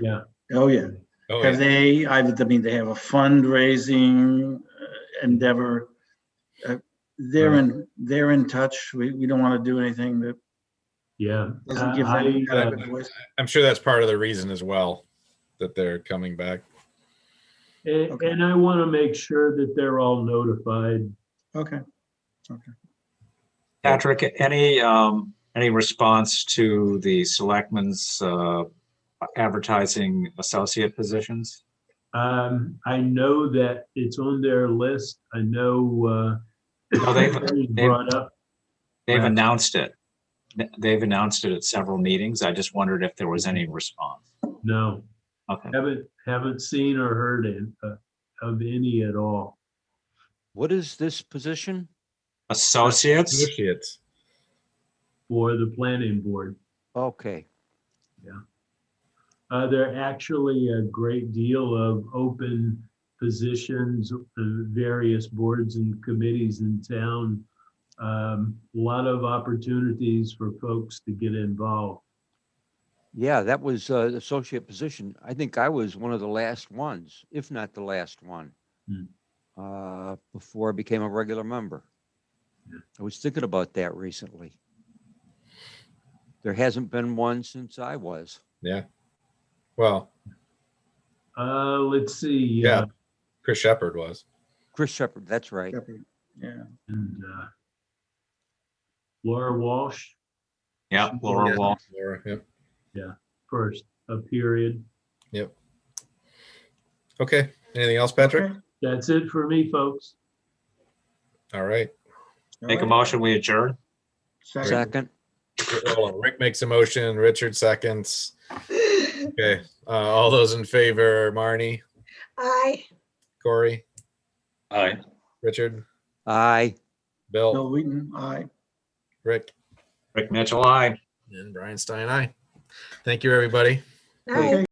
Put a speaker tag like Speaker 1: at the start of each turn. Speaker 1: Yeah.
Speaker 2: Oh, yeah.
Speaker 3: Oh,
Speaker 2: Have
Speaker 3: yeah.
Speaker 2: they, I would- I mean, they have a fundraising uh, endeavor. Uh, They're in, they're in touch. We, we don't want to do anything that
Speaker 1: Yeah.
Speaker 2: doesn't give
Speaker 1: I-
Speaker 2: them kind of
Speaker 3: uh,
Speaker 2: a voice.
Speaker 3: I'm sure that's part of the reason as well that they're coming back.
Speaker 1: And,
Speaker 2: Okay.
Speaker 1: and I want to make sure that they're all notified.
Speaker 2: Okay.
Speaker 4: Patrick, any, um, any response to the selectmen's, uh, advertising associate positions?
Speaker 1: Um, I know that it's on their list. I know, uh,
Speaker 4: No, they've-
Speaker 1: it was
Speaker 4: they've-
Speaker 1: brought up.
Speaker 4: They've
Speaker 1: Right.
Speaker 4: announced it. Th- They've announced it at several meetings. I just wondered if there was any response.
Speaker 1: No,
Speaker 4: Okay.
Speaker 1: haven't, haven't seen or heard in- uh, of any at all.
Speaker 5: What is this position?
Speaker 4: Associates?
Speaker 3: Associates.
Speaker 1: for the planning board.
Speaker 5: Okay,
Speaker 1: Uh, there are actually a great deal of open positions, uh, various boards and committees in town. Um, a lot of opportunities for folks to get involved.
Speaker 5: yeah, that was uh associate position. I think I was one of the last ones, if not the last one.
Speaker 1: Hmm.
Speaker 5: Uh, before I became a regular member.
Speaker 1: Yeah.
Speaker 5: I was thinking about that recently. There hasn't been one since I was.
Speaker 3: Well,
Speaker 1: Uh, let's see.
Speaker 3: Yeah.
Speaker 1: uh,
Speaker 3: Chris Shepard was.
Speaker 5: Chris Shepherd, that's right.
Speaker 2: Yeah.
Speaker 1: And, uh, Laura Walsh
Speaker 4: Yeah, Laura Wall.
Speaker 3: Laura, yep.
Speaker 1: first, a period.
Speaker 3: Okay. Anything else, Patrick?
Speaker 2: Okay.
Speaker 1: That's it for me, folks.
Speaker 3: All right.
Speaker 4: Make a
Speaker 2: All right.
Speaker 4: motion, we adjourn?
Speaker 2: Second.
Speaker 5: Second,
Speaker 3: Hold on. Rick makes a motion. Richard seconds. Okay. Uh, all those in favor, Marnie,
Speaker 6: Aye.
Speaker 3: Corey,
Speaker 4: Aye.
Speaker 3: Richard,
Speaker 5: aye.
Speaker 3: Bill,
Speaker 2: Bill Wheaton, aye.
Speaker 3: Rick,
Speaker 4: Rick Mitchell, aye.
Speaker 3: and Brian Stein, I. Thank you, everybody.
Speaker 6: Aye.